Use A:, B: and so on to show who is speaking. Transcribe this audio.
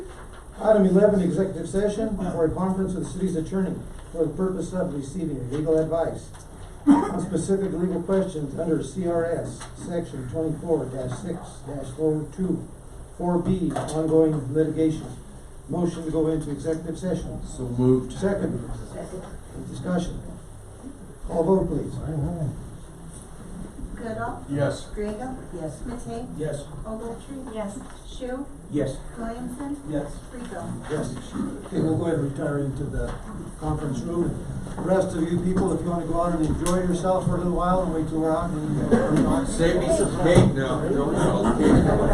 A: Item eleven, executive session for a conference with city's attorney for the purpose of receiving legal advice on specific legal questions under CRS, section twenty-four six 42 four B, ongoing litigation. Motion to go into executive session.
B: So moved.
A: Second, discussion. Call vote please.
C: Goodall,
B: Yes.
C: Grego. Yes. Matei,
B: Yes.
C: Ogletree. Yes. Shu,
B: Yes.
C: Williamson,
B: Yes.
C: Rico.
A: Yes. Okay, we'll go ahead and retire into the conference room. The Rest of you people, if you wanna go out and enjoy yourself for a little while and wait till we're out and.
B: Save me some cake now. Don't- okay.